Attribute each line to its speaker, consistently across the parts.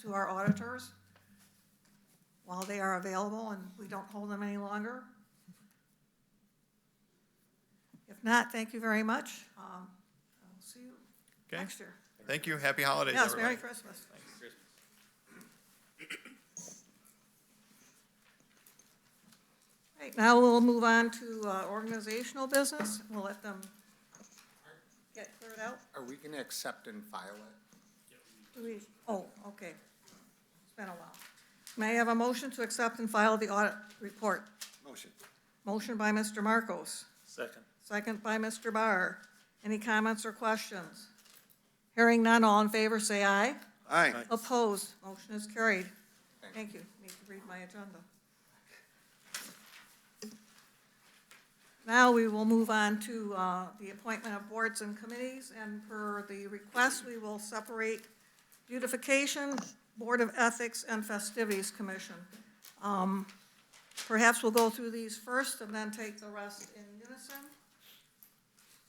Speaker 1: to our auditors while they are available and we don't hold them any longer? If not, thank you very much. Um, I'll see you
Speaker 2: Okay.
Speaker 1: next year.
Speaker 2: Thank you. Happy holidays,
Speaker 1: Yes, Merry
Speaker 2: everybody.
Speaker 1: Christmas. Right, now we'll move on to uh, organizational business. We'll let them get cleared out.
Speaker 3: Are we gonna accept and file it?
Speaker 1: Do we, oh, okay. It's been a while. May I have a motion to accept and file the audit report?
Speaker 3: Motion.
Speaker 1: Motion by Mr. Marcos,
Speaker 4: Second.
Speaker 1: second by Mr. Barr. Any comments or questions? Hearing none, all in favor, say aye.
Speaker 3: Aye.
Speaker 1: Opposed, motion is carried. Thank
Speaker 3: Thank you.
Speaker 1: you, need to read my agenda. Now we will move on to uh, the appointment of boards and committees, and per the request, we will separate beautification, Board of Ethics, and Festivities Commission. Um, Perhaps we'll go through these first and then take the rest in unison.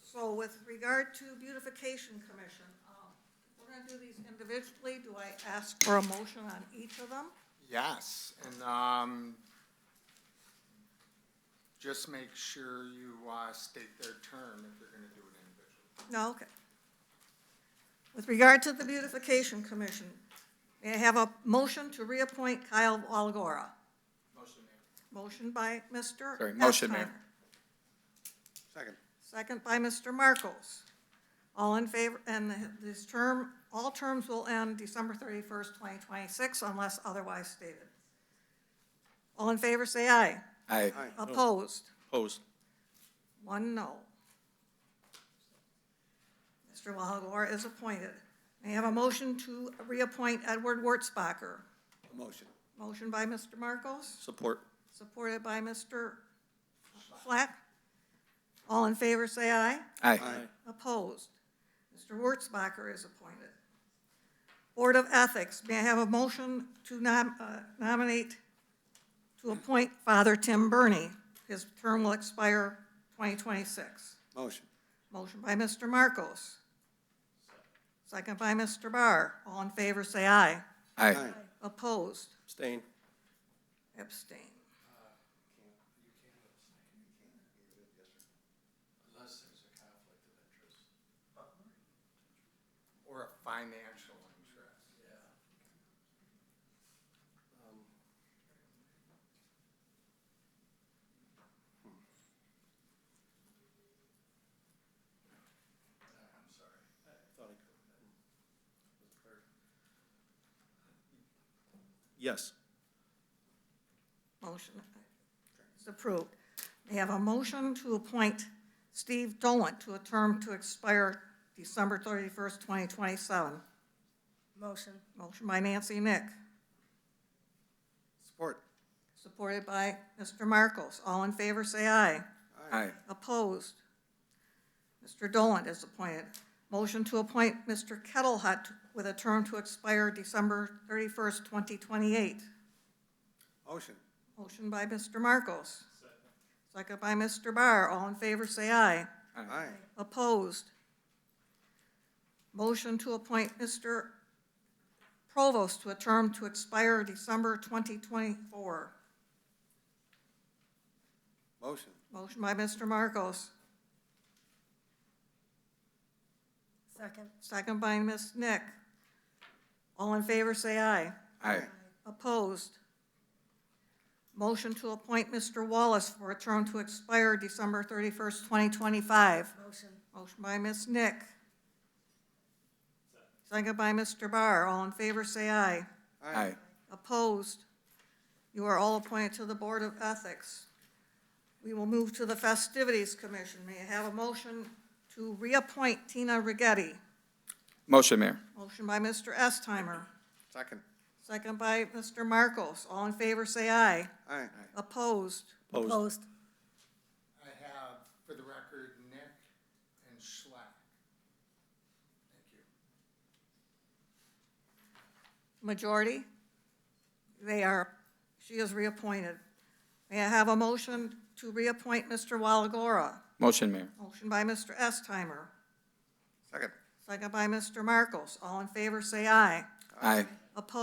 Speaker 1: So with regard to beautification commission, um, we're gonna do these individually. Do I ask for a motion on each of them?
Speaker 3: Yes, and, um, just make sure you, uh, state their term if you're gonna do it individually.
Speaker 1: No, okay. With regard to the beautification commission, may I have a motion to reappoint Kyle Walagora?
Speaker 3: Motion, Mayor.
Speaker 1: Motion by Mr.
Speaker 4: Sorry, motion, Mayor.
Speaker 1: Espener.
Speaker 3: Second.
Speaker 1: Second by Mr. Marcos. All in favor, and this term, all terms will end December 31st, 2026 unless otherwise stated. All in favor, say aye.
Speaker 4: Aye.
Speaker 1: Opposed?
Speaker 4: Opposed.
Speaker 1: One no. Mr. Walagora is appointed. May I have a motion to reappoint Edward Wurtzbacher?
Speaker 3: Motion.
Speaker 1: Motion by Mr. Marcos,
Speaker 4: Support.
Speaker 1: supported by Mr. Flack. All in favor, say aye.
Speaker 4: Aye.
Speaker 1: Opposed? Mr. Wurtzbacher is appointed. Board of Ethics, may I have a motion to nom- uh, nominate, to appoint Father Tim Burney? His term will expire 2026.
Speaker 3: Motion.
Speaker 1: Motion by Mr. Marcos. Second by Mr. Barr. All in favor, say aye.
Speaker 4: Aye.
Speaker 1: Opposed?
Speaker 4: Abstain.
Speaker 1: Abstain.
Speaker 3: Or a financial interest.
Speaker 4: Yes.
Speaker 1: Motion is approved. They have a motion to appoint Steve Dolan to a term to expire December 31st, 2027.
Speaker 5: Motion.
Speaker 1: Motion by Nancy Nick,
Speaker 3: Support.
Speaker 1: supported by Mr. Marcos. All in favor, say aye.
Speaker 4: Aye.
Speaker 1: Opposed? Mr. Dolan is appointed. Motion to appoint Mr. Kettlehut with a term to expire December 31st, 2028.
Speaker 3: Motion.
Speaker 1: Motion by Mr. Marcos. Second by Mr. Barr. All in favor, say aye.
Speaker 3: Aye.
Speaker 1: Opposed? Motion to appoint Mr. Provost to a term to expire December 2024.
Speaker 3: Motion.
Speaker 1: Motion by Mr. Marcos.
Speaker 5: Second.
Speaker 1: Second by Ms. Nick. All in favor, say aye.
Speaker 4: Aye.
Speaker 1: Opposed? Motion to appoint Mr. Wallace for a term to expire December 31st, 2025.
Speaker 5: Motion.
Speaker 1: Motion by Ms. Nick. Second by Mr. Barr. All in favor, say aye.
Speaker 4: Aye.
Speaker 1: Opposed? You are all appointed to the Board of Ethics. We will move to the Festivities Commission. May I have a motion to reappoint Tina Rigetti?
Speaker 4: Motion, Mayor.
Speaker 1: Motion by Mr. Estimer,
Speaker 3: Second.
Speaker 1: second by Mr. Marcos. All in favor, say aye.
Speaker 3: Aye.
Speaker 1: Opposed?
Speaker 4: Opposed.
Speaker 3: I have, for the record, Nick and Schlack. Thank you.
Speaker 1: Majority? They are, she is reappointed. May I have a motion to reappoint Mr. Walagora?
Speaker 4: Motion, Mayor.
Speaker 1: Motion by Mr. Estimer,
Speaker 3: Second.
Speaker 1: second by Mr. Marcos. All in favor, say aye.
Speaker 4: Aye.
Speaker 1: Opposed?